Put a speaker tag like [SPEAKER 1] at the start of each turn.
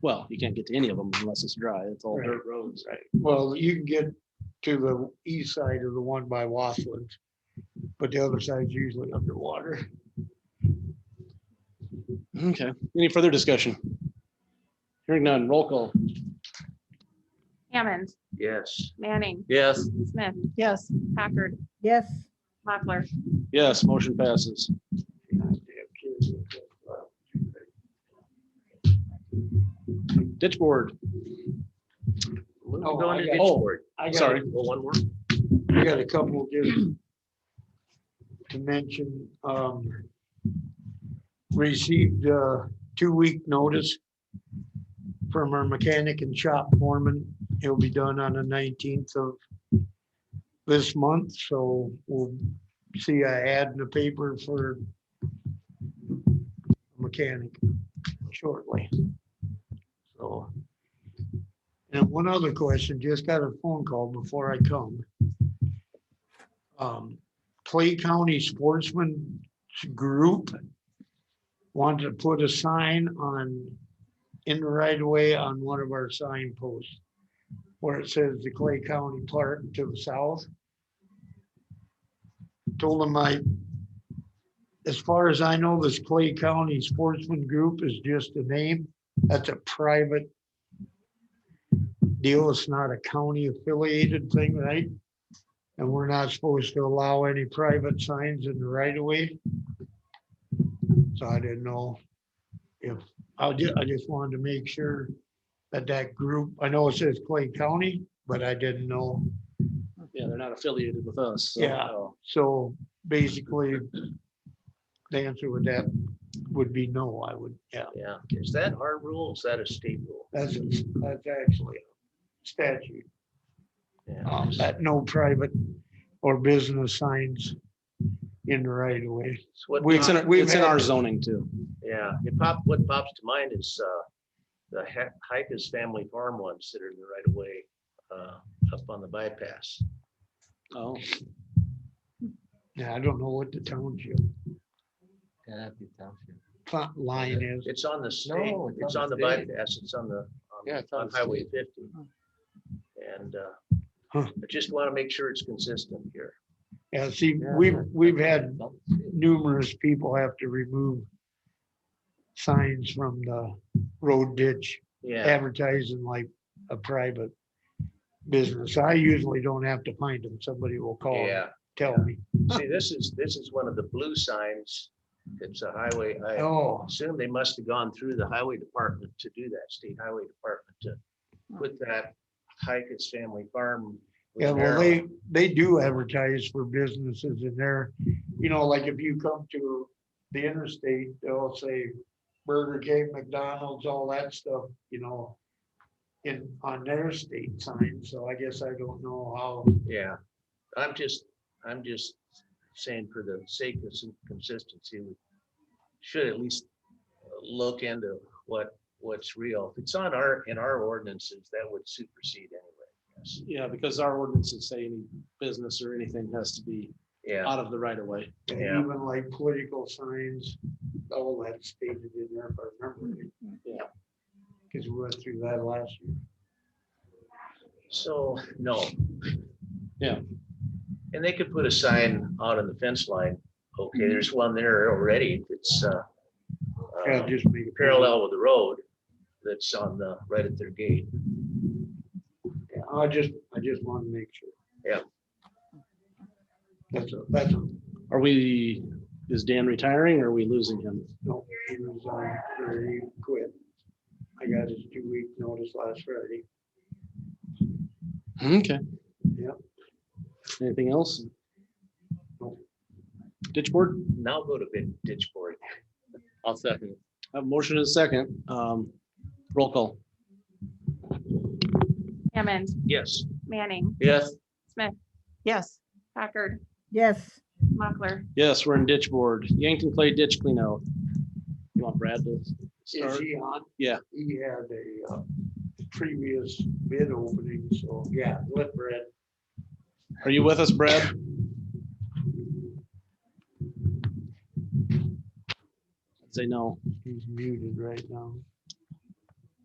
[SPEAKER 1] Well, you can't get to any of them unless it's dry. It's all
[SPEAKER 2] Right.
[SPEAKER 1] dirt roads. Right.
[SPEAKER 2] Well, you can get to the east side of the one by Wasland, but the other side's usually underwater.
[SPEAKER 1] Okay. Any further discussion? Hearing none. Roll call.
[SPEAKER 3] Hammond,
[SPEAKER 4] Yes.
[SPEAKER 3] Manning,
[SPEAKER 4] Yes.
[SPEAKER 3] Smith,
[SPEAKER 5] Yes.
[SPEAKER 3] Packard,
[SPEAKER 5] Yes.
[SPEAKER 3] Mochler.
[SPEAKER 1] Yes, motion passes. Ditch board.
[SPEAKER 2] Oh,
[SPEAKER 4] Going
[SPEAKER 2] I
[SPEAKER 4] to
[SPEAKER 2] got-
[SPEAKER 4] ditch board.
[SPEAKER 2] I got-
[SPEAKER 1] Sorry.
[SPEAKER 4] Well, one more.
[SPEAKER 2] I got a couple just to mention, um, received a two-week notice from our mechanic and shop foreman. It'll be done on the nineteenth of this month, so we'll see a ad in the paper for mechanic shortly. So. And one other question, just got a phone call before I come um, Clay County Sportsman Group wanted to put a sign on, in the right of way on one of our signposts where it says the Clay County Park to the south. Told them I, as far as I know, this Clay County Sportsman Group is just a name. That's a private deal. It's not a county affiliated thing, right? And we're not supposed to allow any private signs in the right of way. So I didn't know if, I just, I just wanted to make sure that that group, I know it says Clay County, but I didn't know.
[SPEAKER 1] Yeah, they're not affiliated with us. so, Oh.
[SPEAKER 2] Yeah.
[SPEAKER 1] no.
[SPEAKER 2] So basically, the answer with that would be no, I would, yeah.
[SPEAKER 4] Yeah. Is that our rule? Is that a state rule?
[SPEAKER 2] That's, that's actually a statute,
[SPEAKER 4] Yeah.
[SPEAKER 2] um, that no private or business signs in the right of way.
[SPEAKER 4] It's what
[SPEAKER 1] We- It's in,
[SPEAKER 4] pop-
[SPEAKER 1] our-
[SPEAKER 2] We've
[SPEAKER 1] it's in our
[SPEAKER 2] had-
[SPEAKER 1] zoning too.
[SPEAKER 4] Yeah, it pop, what pops to mind is, uh, the Hikers Family Farm ones that are in the right of way, uh, up on the bypass.
[SPEAKER 1] Oh,
[SPEAKER 2] Yeah, I don't know what the township plot line is.
[SPEAKER 4] It's on the state,
[SPEAKER 6] No, it's
[SPEAKER 4] it's
[SPEAKER 6] on
[SPEAKER 4] on the
[SPEAKER 6] the state.
[SPEAKER 4] bypass, it's on the, on-
[SPEAKER 6] Yeah, it's on
[SPEAKER 4] on
[SPEAKER 6] the
[SPEAKER 4] Highway fifty. And, uh,
[SPEAKER 2] Huh.
[SPEAKER 4] I just want to make sure it's consistent here.
[SPEAKER 2] Yeah, see, we've, we've had numerous people have to remove signs from the road ditch
[SPEAKER 4] Yeah,
[SPEAKER 2] advertising like a private business. I usually don't have to find them. Somebody will call, and
[SPEAKER 4] yeah.
[SPEAKER 2] tell me.
[SPEAKER 4] See, this is, this is one of the blue signs. It's a highway. I
[SPEAKER 2] Oh,
[SPEAKER 4] assume they must have gone through the highway department to do that, state highway department to put that Hikers Family Farm. with
[SPEAKER 2] yeah, well,
[SPEAKER 4] Merrill.
[SPEAKER 2] they, they do advertise for businesses in there. You know, like if you come to the interstate, they'll say Burger King, McDonald's, all that stuff, you know, in, on their state sign. So I guess I don't know how.
[SPEAKER 4] Yeah, I'm just, I'm just saying for the sake of some consistency, we should at least look into what, what's real. If it's on our, in our ordinances, that would supersede anyway. I guess.
[SPEAKER 1] yeah, because our ordinances say any business or anything has to be
[SPEAKER 4] Yeah,
[SPEAKER 1] out of the right of way.
[SPEAKER 2] And
[SPEAKER 4] Yeah.
[SPEAKER 2] Even like political signs, all that stated in there, if I remember. right.
[SPEAKER 1] Yeah.
[SPEAKER 2] Cause we went through that last year.
[SPEAKER 4] so, no.
[SPEAKER 1] Yeah.
[SPEAKER 4] And they could put a sign out on the fence line. Okay, there's one there already. It's, uh,
[SPEAKER 2] Yeah,
[SPEAKER 4] uh,
[SPEAKER 2] just made. a-
[SPEAKER 4] parallel with the road that's on the, right at their gate.
[SPEAKER 2] Yeah, I just, I just want to make sure.
[SPEAKER 4] Yeah.
[SPEAKER 2] That's, a- that's, a-
[SPEAKER 1] Are we, is Dan retiring or are we losing him?
[SPEAKER 2] no, he resigned, or he quit. I got his two week notice last Friday.
[SPEAKER 1] Okay.
[SPEAKER 2] Yep.
[SPEAKER 1] Anything else?
[SPEAKER 2] Nope.
[SPEAKER 1] Ditch board?
[SPEAKER 4] Now go to bid- ditch board.
[SPEAKER 6] I'll second it.
[SPEAKER 1] Have a motion and a second. Um, roll call.
[SPEAKER 3] Hammond,
[SPEAKER 4] Yes.
[SPEAKER 3] Manning,
[SPEAKER 4] Yes.
[SPEAKER 3] Smith,
[SPEAKER 5] Yes.
[SPEAKER 3] Packard,
[SPEAKER 5] Yes.
[SPEAKER 3] Mochler.
[SPEAKER 1] Yes, we're in ditch board. Yankton Clay Ditch Cleanout. You want Brad to
[SPEAKER 2] Is
[SPEAKER 1] start?
[SPEAKER 2] he on?
[SPEAKER 1] Yeah.
[SPEAKER 2] He had a uh, previous bid opening, so yeah, let Brad.
[SPEAKER 1] Are you with us, Brad? I'd Say no.
[SPEAKER 2] He's muted right now.